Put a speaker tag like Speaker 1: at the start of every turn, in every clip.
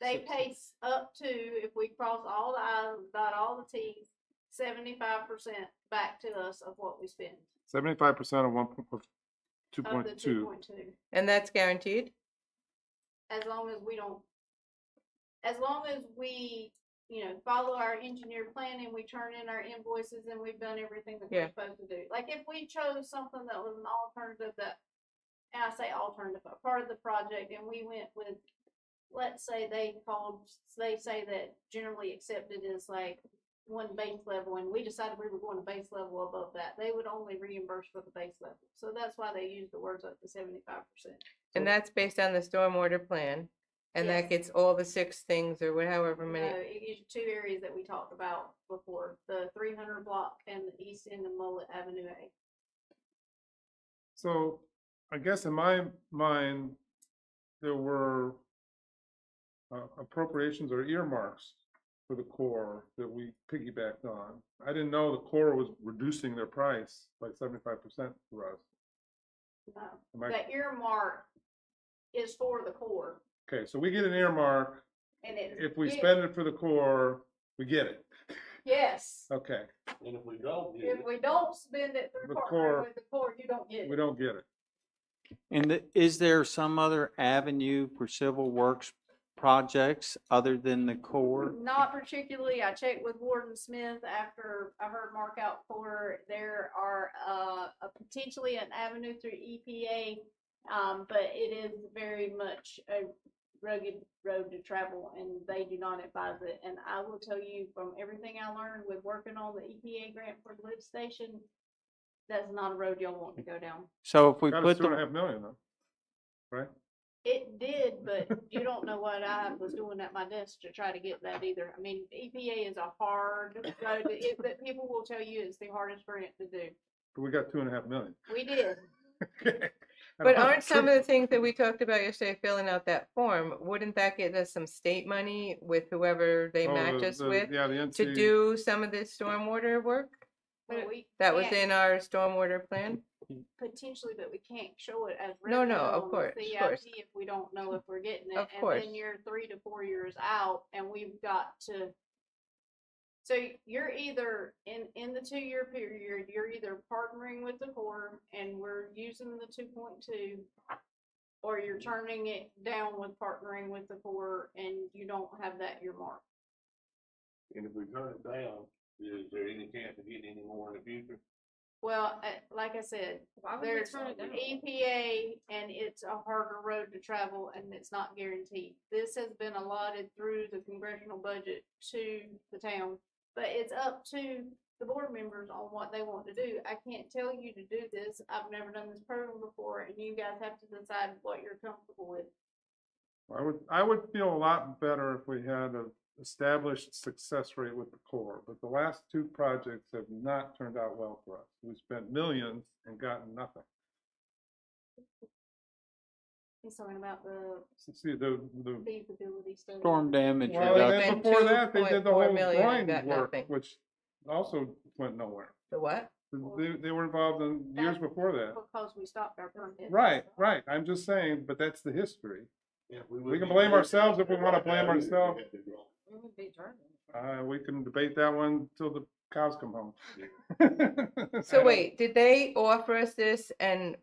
Speaker 1: They pay up to, if we cross all the i's, and dot all the t's, seventy-five percent back to us of what we spend,
Speaker 2: Seventy-five percent of one, po- of two
Speaker 1: of the
Speaker 2: point
Speaker 1: two
Speaker 2: two.
Speaker 1: point two,
Speaker 3: And that's guaranteed?
Speaker 1: as long as we don't, as long as we, you know, follow our engineer plan and we turn in our invoices and we've done everything that
Speaker 3: Yeah.
Speaker 1: we're supposed to do. Like if we chose something that was an alternative that, and I say alternative, but part of the project, and we went with, let's say they called, they say that generally accepted is like one base level, and we decided we were going to base level above that, they would only reimburse for the base level. So that's why they use the words up to seventy-five percent.
Speaker 3: And that's based on the stormwater plan? And that
Speaker 1: Yes.
Speaker 3: gets all the six things or wha- however
Speaker 1: No,
Speaker 3: many?
Speaker 1: it is two areas that we talked about before, the three hundred block and the east end of Mullet Avenue A.
Speaker 2: So I guess in my mind, there were uh, appropriations or earmarks for the core that we piggybacked on. I didn't know the core was reducing their price by seventy-five percent for us.
Speaker 1: No,
Speaker 2: Am I-
Speaker 1: The earmark is for the core
Speaker 2: Okay, so we get an earmark.
Speaker 1: and it.
Speaker 2: If we
Speaker 1: it-
Speaker 2: spend it for the core, we get it.
Speaker 1: Yes,
Speaker 2: Okay,
Speaker 4: And if we don't use
Speaker 1: if
Speaker 4: it,
Speaker 1: we don't spend it through
Speaker 2: The
Speaker 1: partnering
Speaker 2: core-
Speaker 1: with the core, you don't get
Speaker 2: we
Speaker 1: it.
Speaker 2: don't get it.
Speaker 5: And the- is there some other avenue for civil works projects other than the core?
Speaker 1: Not particularly, I checked with Warden Smith after I heard Mark out for, there are, uh, a potentially an avenue through EPA. Um, but it is very much a rugged road to travel and they do not advise it. And I will tell you from everything I learned with working on the EPA grant for the lift station, that's not a road y'all want to go down.
Speaker 5: So if we
Speaker 2: Got us
Speaker 5: put
Speaker 2: two and a
Speaker 5: the,
Speaker 2: half million though.
Speaker 1: It did, but you don't know what I was doing at my desk to try to get that either. I mean, EPA is a hard road, to- it, that people will tell you it's the hardest grant to do.
Speaker 2: but we got two and a half million.
Speaker 1: We did.
Speaker 3: But aren't some of the things that we talked about yesterday, filling out that form, wouldn't that get us some state money with whoever they
Speaker 2: Oh,
Speaker 3: match
Speaker 2: the-
Speaker 3: us
Speaker 2: the-
Speaker 3: with?
Speaker 2: Yeah, the
Speaker 3: To
Speaker 2: NC,
Speaker 3: do some of this stormwater work?
Speaker 1: But
Speaker 3: But
Speaker 1: we
Speaker 3: That was
Speaker 1: can't-
Speaker 3: in our stormwater plan?
Speaker 1: Potentially, but we can't show it as.
Speaker 3: No, no,
Speaker 1: revenue
Speaker 3: of
Speaker 1: on the
Speaker 3: course, of
Speaker 1: CIP
Speaker 3: course.
Speaker 1: If we don't know if we're getting it.
Speaker 3: Of course.
Speaker 1: And then you're three to four years out and we've got to. So you're either in, in the two-year period, you're either partnering with the core and we're using the two point two. Or you're turning it down with partnering with the core and you don't have that earmark.
Speaker 4: and if we turn it down, is there any chance of getting any more in the future?
Speaker 1: Well, uh, like I said, There's EPA and it's a harder road to travel and it's not guaranteed. This has been allotted through the congressional budget to the town, but it's up to the board members on what they want to do. I can't tell you to do this. I've never done this program before and you guys have to decide what you're comfortable with.
Speaker 2: I would, I would feel a lot better if we had a established success rate with the core, but the last two projects have not turned out well for us. We spent millions and gotten nothing.
Speaker 1: He's talking about the
Speaker 2: See, the, the,
Speaker 1: feasibility study.
Speaker 5: storm damage
Speaker 3: Well,
Speaker 2: well, and
Speaker 3: they
Speaker 2: then
Speaker 3: spent
Speaker 5: reduction,
Speaker 2: before that, they did the
Speaker 3: 2.4
Speaker 2: whole
Speaker 3: million and
Speaker 2: drawing
Speaker 3: got
Speaker 2: work,
Speaker 3: nothing.
Speaker 2: which also went nowhere.
Speaker 3: The what?
Speaker 2: They, they were involved in years
Speaker 1: That's
Speaker 2: before that.
Speaker 1: Because we stopped our permit.
Speaker 2: Right, right. I'm just saying, but that's the history.
Speaker 4: If
Speaker 2: We
Speaker 4: wouldn't
Speaker 2: can
Speaker 4: be
Speaker 2: blame
Speaker 4: doing
Speaker 2: ourselves
Speaker 4: that,
Speaker 2: if we wanna
Speaker 4: right now,
Speaker 2: blame
Speaker 4: we would be
Speaker 2: ourselves.
Speaker 4: at the wrong.
Speaker 2: Uh, we can debate that one till the cows come home. I
Speaker 3: So
Speaker 2: don't-
Speaker 3: wait, did they offer us this and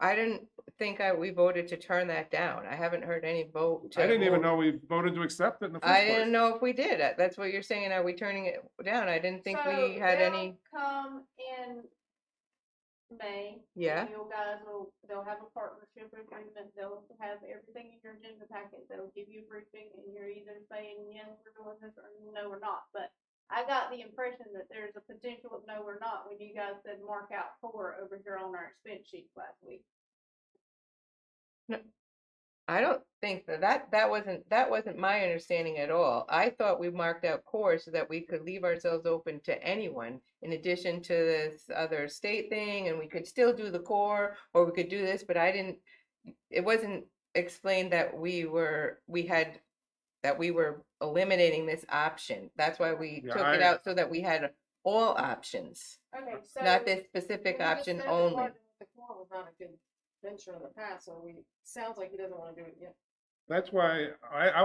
Speaker 3: I didn't think I, we voted to turn that down. I haven't heard any vote.
Speaker 2: I
Speaker 3: to
Speaker 2: didn't even
Speaker 3: move-
Speaker 2: know we voted to accept it in the first
Speaker 3: I
Speaker 2: place.
Speaker 3: didn't know if we did. Uh, That's what you're saying. Are we turning it down? I didn't think
Speaker 1: So
Speaker 3: we had
Speaker 1: they'll
Speaker 3: any.
Speaker 1: Come in May. and
Speaker 3: Yeah.
Speaker 1: You guys will, they'll have a partnership agreement, they'll have everything in your agenda packet, they'll give you a briefing, and you're either saying, yes, we're doing this, or no, we're not, but I got the impression that there's a potential of no, we're not, when you guys said mark out four over here on our expense sheet last week.
Speaker 3: I don't think that, that, that wasn't, that wasn't my understanding at all. I thought we marked out core so that we could leave ourselves open to anyone. In addition to this other state thing, and we could still do the core, or we could do this, but I didn't, it wasn't explained that we were, we had, that we were eliminating this option. That's why we
Speaker 2: Yeah,
Speaker 3: took it
Speaker 2: I-
Speaker 3: out so that we had all options,
Speaker 1: Okay, so.
Speaker 3: not this specific
Speaker 6: Well, you just
Speaker 3: option
Speaker 6: said that
Speaker 3: only.
Speaker 6: partnering with The core was not a good venture in the past, so we, sounds like he doesn't wanna do it yet.
Speaker 2: That's why I, I